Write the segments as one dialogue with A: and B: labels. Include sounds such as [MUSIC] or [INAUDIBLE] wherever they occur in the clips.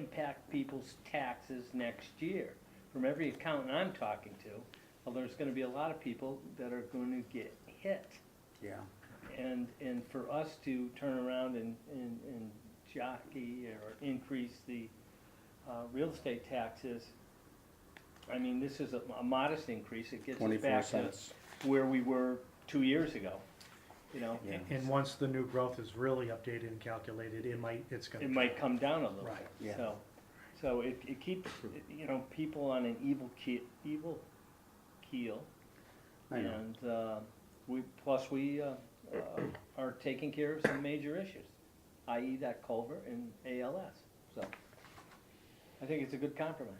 A: impact people's taxes next year. From every accountant I'm talking to, well, there's gonna be a lot of people that are gonna get hit.
B: yeah.
A: And, and for us to turn around and, and, and jockey or increase the, uh, real estate taxes, I mean, this is a a modest increase, it gets us
B: Twenty-four
A: back to
B: cents.
A: where we were two years ago, you know?
B: Yeah.
C: And once the new growth is really updated and calculated, it might, it's gonna.
A: it might come down a little
C: Right,
A: bit,
B: yeah.
A: so. So it, it keeps, it- you know, people on an evil keel, evil keel.
B: I know.
A: And, uh, we, plus we, uh, uh, are taking care of some major issues, i.e. that culvert and ALS, so. I think it's a good compromise.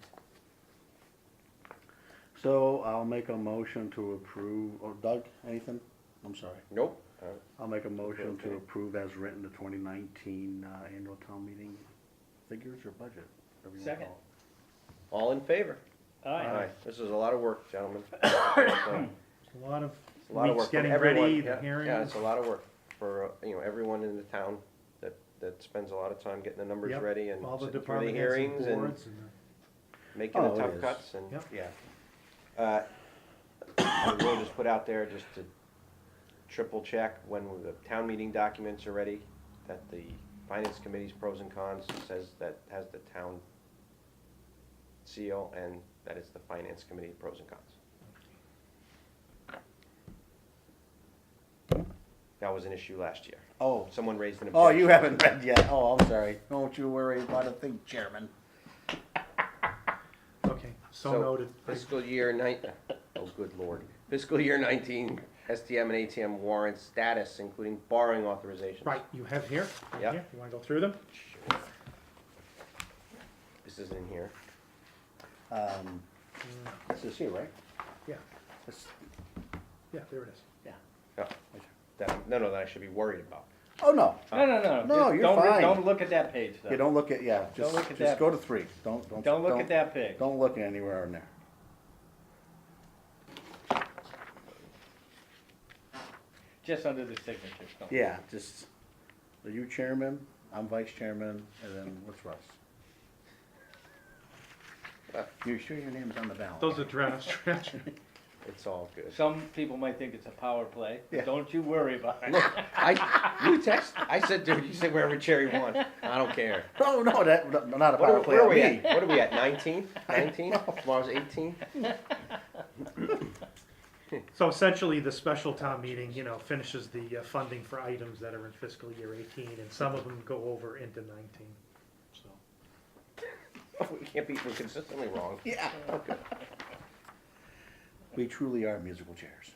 B: So I'll make a motion to approve, or Doug, anything? I'm sorry.
D: Nope. Uh,
B: I'll make a motion to
D: Okay.
B: approve as written the twenty nineteen, uh, annual town meeting figures or budget. whatever you wanna
A: Second.
B: call it.
D: All in favor?
A: All right,
D: This is a lot of work,
C: [COUGHS]
D: gentlemen. It's
C: It's A lot of
D: a lot of
C: weeks
D: work from
C: getting
D: everyone.
C: ready,
D: Yeah,
C: the
D: Yeah,
C: hearings.
D: it's a lot of work for, uh, you know, everyone in the town that, that spends a lot of time getting the numbers
C: Yep,
D: ready and
C: all the
D: sitting through the
C: department heads and
D: hearings and
C: boards and the-
D: making the
B: Oh, it
D: tough
B: is.
D: cuts and.
C: Yep.
B: Yeah.
D: Uh, I will just put out there just to triple check when the town meeting documents are ready, that the finance committee's pros and cons says that has the town seal and that it's the finance committee pros and cons. That was an issue last year.
B: Oh,
D: Someone raised an
B: oh,
D: objection.
B: you haven't read yet. Oh, I'm sorry. Don't you worry about a thing, Chairman.
C: okay, so noted.
D: Fiscal year nine, oh, good lord. Fiscal year nineteen, STM and ATM warrant status, including borrowing authorizations.
C: Right, you have here, right
D: Yeah.
C: here, you wanna go through them?
D: This isn't in here.
B: Um,
A: Mm.
B: this is here, right?
C: Yeah,
B: This-
C: yeah, there it is.
B: Yeah.
D: Oh, that, no, no, that I should be worried about.
B: Oh, no.
A: no, no, no.
B: No,
A: just
B: you're
A: don't re-
B: fine.
A: Don't look at that page,
B: You
A: though.
B: don't look at, yeah, just,
A: look at
B: just
A: that.
B: go to three. Don't, don't.
A: Don't look at that page.
B: Don't look anywhere in there.
A: Just under the signature, do
B: Yeah, just, are you chairman? I'm vice chairman, and then what's
D: [LAUGHS]
B: Russ? You sure your name's on the ballot?
C: Those are draft, draft.
D: It's all good.
A: Some people might think it's a power play, but
B: Yeah.
A: don't you worry about it.
D: Look, I, you text, I said, dude, you say wherever Cherry won. I don't care.
B: No, Oh, no, that, no, not a
D: [LAUGHS] What are,
B: power play
D: where are
B: on
D: we
B: me.
D: at? What are we at, [LAUGHS] nineteen? Nineteen? Tomorrow's eighteen?
C: [LAUGHS]
D: [LAUGHS]
C: So essentially, the special town meeting, you know, finishes the uh, funding for items that are in fiscal year eighteen, and some of them go over into nineteen, so.
D: We can't be, we're consistently wrong.
B: Yeah.
D: [LAUGHS]
B: We truly are musical chairs.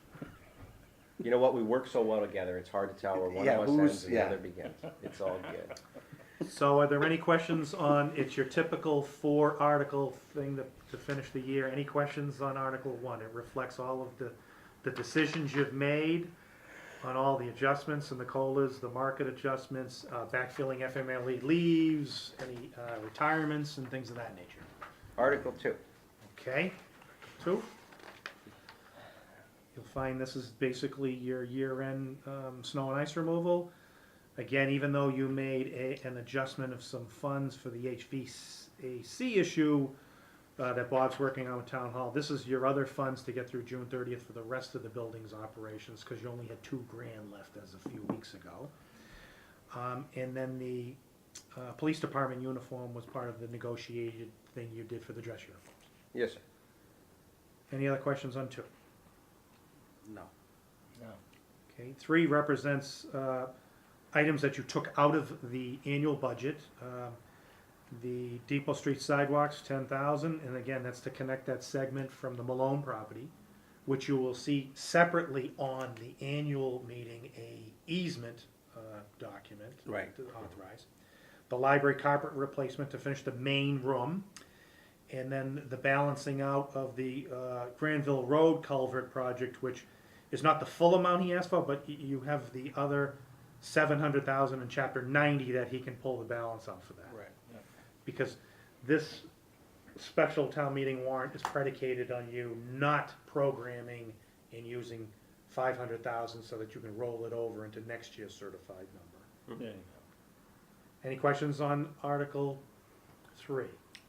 D: You know what? We work so well together, it's hard to tell where one
B: Yeah,
D: of us
B: who's-
D: ends and
B: yeah.
D: the other begins. It's all good.
C: So are there any questions on, it's your typical four article thing to, to finish the year, any questions on Article One? It reflects all of the, the decisions you've made on all the adjustments and the COLAs, the market adjustments, uh, backfilling FMLE E leaves, any, uh, retirements and things of that nature.
D: Article two.
C: Okay, two. You'll find this is basically your year-end um, snow and ice removal. Again, even though you made a, an adjustment of some funds for the HVAC issue uh, that Bob's working on with Town Hall, this is your other funds to get through June thirtieth for the rest of the building's operations, because you only had two grand left as a few weeks ago. Um, And then the uh, police department uniform was part of the negotiated thing you did for the dress uniform.
D: Yes, sir.
C: Any other questions on two?
B: No.
A: No.
C: Okay, three represents uh, items that you took out of the annual budget. Um, The Depot Street sidewalks, ten thousand, and again, that's to connect that segment from the Malone property, which you will see separately on the annual meeting, a easement uh, document.
B: Right.
C: To authorize. The library carpet replacement to finish the main room. And then the balancing out of the uh, Granville Road culvert project, which is not the full amount he asked for, but y- you have the other seven hundred thousand in chapter ninety that he can pull the balance out for that.
B: Right.
C: Because this special town meeting warrant is predicated on you not programming and using five hundred thousand so that you can roll it over into next year's certified number.
A: There you go.
C: Any questions on Article three.